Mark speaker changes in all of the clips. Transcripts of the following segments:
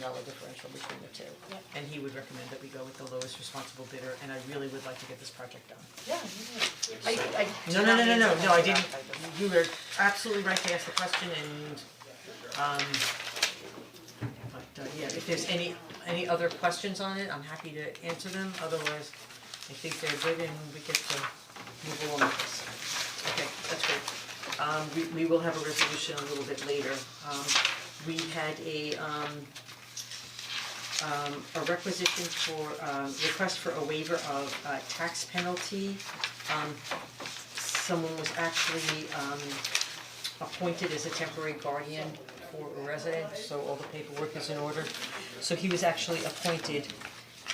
Speaker 1: dollar differential between the two.
Speaker 2: Yep.
Speaker 1: And he would recommend that we go with the lowest responsible bidder, and I really would like to get this project done.
Speaker 2: Yeah, I I do
Speaker 1: No, no,
Speaker 2: not
Speaker 1: no, no,
Speaker 2: mean
Speaker 1: no,
Speaker 2: to
Speaker 1: no, I
Speaker 2: hold it
Speaker 1: didn't,
Speaker 2: up, I just-
Speaker 1: you were absolutely right to ask the question and, um, but, uh, yeah, if there's any, any other questions on it, I'm happy to answer them, otherwise, I think they're good and we get to move along with this. Okay, that's great. Um, we, we will have a resolution a little bit later, um, we had a, um, um, a requisition for, um, request for a waiver of, uh, tax penalty, um, someone was actually um appointed as a temporary guardian for a resident, so all the paperwork is in order. So he was actually appointed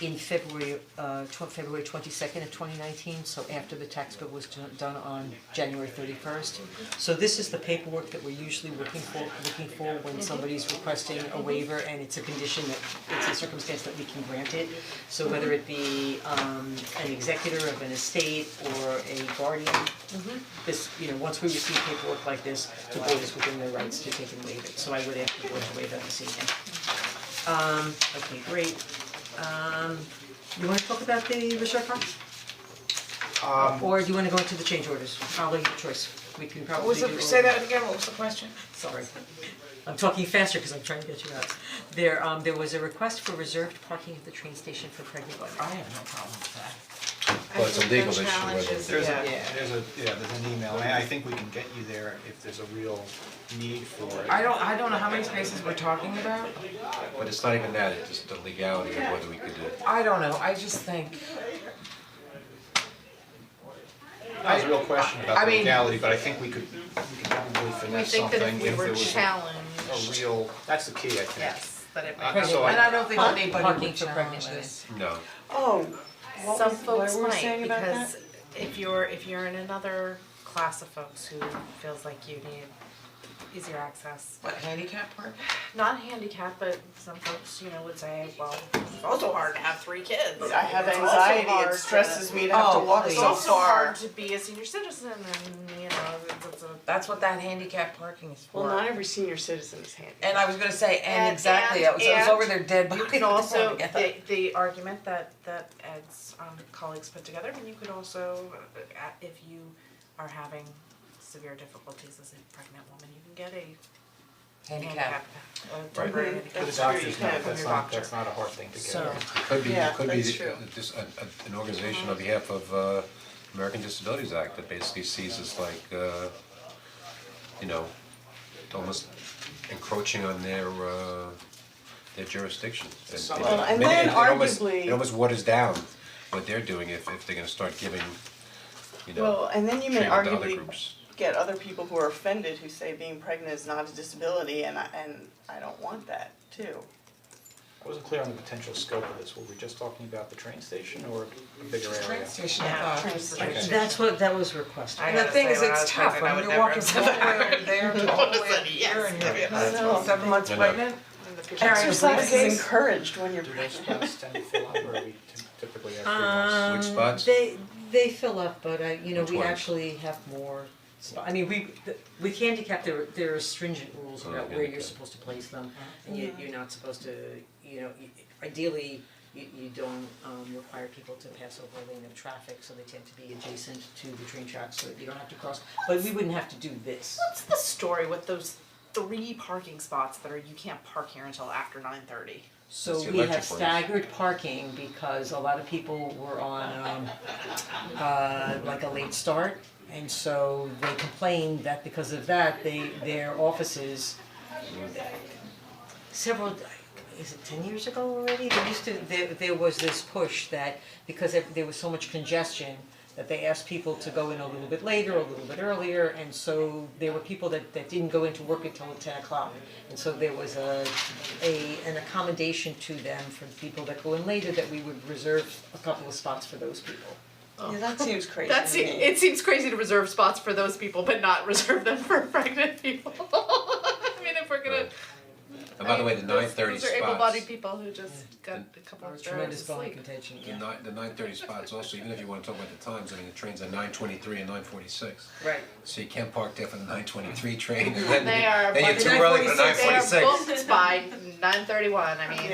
Speaker 1: in February, uh, tw- February twenty-second of twenty nineteen, so after the tax bill was do- done on January thirty-first. So this is the paperwork that we're usually looking for, looking for when somebody's requesting a waiver and it's a condition that, it's a circumstance that we can grant it. So whether it be um an executor of an estate or a guardian, this, you know, once we receive paperwork like this, the board is within their rights to take and waive it, so I would ask the board to waive that this evening. Um, okay, great, um, you wanna talk about the reserve fund?
Speaker 3: Um,
Speaker 1: Or do you wanna go into the change orders, probably your choice, we can
Speaker 2: What
Speaker 1: probably
Speaker 2: was
Speaker 1: do.
Speaker 2: the,
Speaker 1: all
Speaker 2: say
Speaker 1: of
Speaker 2: that again, what was the question?
Speaker 1: sorry. I'm talking faster because I'm trying to get you out. There, um, there was a request for reserved parking at the train station for pregnant women. I have no problem with that.
Speaker 4: Well, it's a legal issue, whether-
Speaker 5: There's a,
Speaker 1: Yeah.
Speaker 5: there's a, yeah, there's an email, and I think we can get you there if there's a real need for
Speaker 3: I
Speaker 5: it,
Speaker 3: don't, I don't know how many spaces we're talking about.
Speaker 4: But it's not even that, it's just the legality of whether we could do it.
Speaker 3: I don't know, I just think,
Speaker 5: that was a real question
Speaker 3: I
Speaker 5: about the
Speaker 3: mean-
Speaker 5: legality, but I think we could, we could probably
Speaker 2: We
Speaker 5: finesse
Speaker 2: think that
Speaker 5: something
Speaker 2: if we
Speaker 5: if there
Speaker 2: were
Speaker 5: was a- a
Speaker 2: challenged,
Speaker 5: real, that's the key, I think.
Speaker 2: yes, that it
Speaker 5: Uh,
Speaker 2: might be.
Speaker 5: so I-
Speaker 3: and I don't think anybody
Speaker 1: Parking
Speaker 3: would
Speaker 1: for pregnant
Speaker 3: challenge
Speaker 1: women.
Speaker 3: this.
Speaker 4: No,
Speaker 6: Oh, what
Speaker 2: Some
Speaker 6: was- what
Speaker 2: folks
Speaker 6: were we
Speaker 2: might,
Speaker 6: saying about that?
Speaker 2: because if you're, if you're in another class of folks who feels like you need easier access.
Speaker 3: What, handicap park?
Speaker 2: Not handicapped, but some folks, you know, would say, well, it's also hard to have three kids.
Speaker 6: I have
Speaker 2: It's also
Speaker 6: anxiety,
Speaker 2: hard
Speaker 6: it
Speaker 2: to-
Speaker 6: stresses me to have to
Speaker 3: Oh,
Speaker 6: walk
Speaker 3: please.
Speaker 2: It's
Speaker 6: so
Speaker 2: also
Speaker 6: far.
Speaker 2: hard to be a senior citizen and, you know, it's, it's a.
Speaker 3: That's what that handicap parking is for.
Speaker 6: Well, not every senior citizen is handy.
Speaker 3: And I was gonna say, and
Speaker 2: And-
Speaker 3: exactly,
Speaker 2: and-
Speaker 3: it was, it was
Speaker 2: and
Speaker 3: over their dead body.
Speaker 2: You can
Speaker 3: this
Speaker 2: also,
Speaker 3: morning.
Speaker 2: the the argument that that Ed's um colleagues put together, and you could also, uh, uh, if you are having severe difficulties as a pregnant woman, you can get a handicap,
Speaker 3: Handicap.
Speaker 2: a temporary handicap.
Speaker 5: The
Speaker 6: That's
Speaker 5: doctor's
Speaker 6: pretty
Speaker 5: note,
Speaker 6: good.
Speaker 5: that's not, that's not a hard thing to get.
Speaker 1: So-
Speaker 4: it could be,
Speaker 6: Yeah,
Speaker 4: it could be
Speaker 6: that's true.
Speaker 4: just a, a, an organization on behalf of uh, American Disabilities Act that basically sees us like, uh, you know, almost encroaching on their, uh, their jurisdiction. And-
Speaker 5: Some-
Speaker 4: and
Speaker 5: Well,
Speaker 6: and
Speaker 4: many-
Speaker 6: then
Speaker 4: it- it almost-
Speaker 6: arguably-
Speaker 4: It almost waters down what they're doing if, if they're gonna start giving, you
Speaker 6: Well,
Speaker 4: know,
Speaker 6: and then you may
Speaker 4: treatment to other
Speaker 6: arguably
Speaker 4: groups.
Speaker 6: get other people who are offended who say being pregnant is not a disability and I, and I don't want that too.
Speaker 5: I wasn't clear on the potential scope of this, were we just talking about the train station or a bigger area?
Speaker 3: Train station, I
Speaker 2: Yeah,
Speaker 3: thought.
Speaker 4: Okay.
Speaker 1: That's what, that was requested.
Speaker 2: I
Speaker 3: And the
Speaker 2: gotta
Speaker 3: thing
Speaker 2: say,
Speaker 3: is,
Speaker 2: when I
Speaker 3: it's
Speaker 2: was
Speaker 3: tough,
Speaker 2: pregnant, I
Speaker 3: when
Speaker 2: would
Speaker 3: you're
Speaker 2: never
Speaker 3: walking
Speaker 2: have
Speaker 3: from
Speaker 2: said
Speaker 3: one way over there to all the way over here and you're seven months
Speaker 4: I know.
Speaker 3: pregnant.
Speaker 6: Exercise is encouraged when you're
Speaker 5: Do those
Speaker 6: pregnant.
Speaker 5: spots tend to fill up or we typically have three months?
Speaker 1: Um,
Speaker 4: Which spots?
Speaker 1: They they fill up, but I, you know,
Speaker 4: Which
Speaker 1: we
Speaker 4: ones?
Speaker 1: actually have more. sp- I mean, we, th- with handicap, there there are stringent rules
Speaker 4: Oh,
Speaker 1: about where you're
Speaker 4: handicap.
Speaker 1: supposed to place them. And you you're not supposed to, you know, y- ideally, you you don't um require people to pass over a lane of traffic, so they tend to be adjacent to the train tracks so that you don't have to cross. But we wouldn't have to do this.
Speaker 2: What's the story with those three parking spots that are, you can't park here until after nine thirty?
Speaker 1: So
Speaker 4: That's the
Speaker 1: we have
Speaker 4: electric ones.
Speaker 1: staggered parking because a lot of people were on um uh like a late start. And so they complained that because of that, they their offices several, is it ten years ago already? There used to, there there was this push that because there- there was so much congestion that they asked people to go in a little bit later, a little bit earlier, and so there were people that that didn't go into work until ten o'clock. And so there was a a an accommodation to them for people that go in later that we would reserve a couple of spots for those people.
Speaker 6: Yeah, that seems crazy to
Speaker 2: That's,
Speaker 6: me.
Speaker 2: it seems crazy to reserve spots for those people, but not reserve them for pregnant people. I mean, if we're gonna,
Speaker 4: I'm Uh, by the way, the nine thirty
Speaker 2: Those are
Speaker 4: spots.
Speaker 2: able-bodied people who just got a couple
Speaker 1: Or
Speaker 2: of hours
Speaker 1: tremendous
Speaker 2: of
Speaker 1: bone
Speaker 2: sleep.
Speaker 1: contention,
Speaker 4: The
Speaker 1: yeah,
Speaker 4: nine, the nine thirty spots also, even if you wanna talk about the times, I mean, the trains are nine twenty-three and nine forty-six.
Speaker 1: right.
Speaker 4: So you can't park there for the nine twenty-three train and then,
Speaker 2: They are
Speaker 4: then you're
Speaker 2: above-
Speaker 4: too early for the nine forty-six.
Speaker 2: They are booked by nine thirty-one, I mean.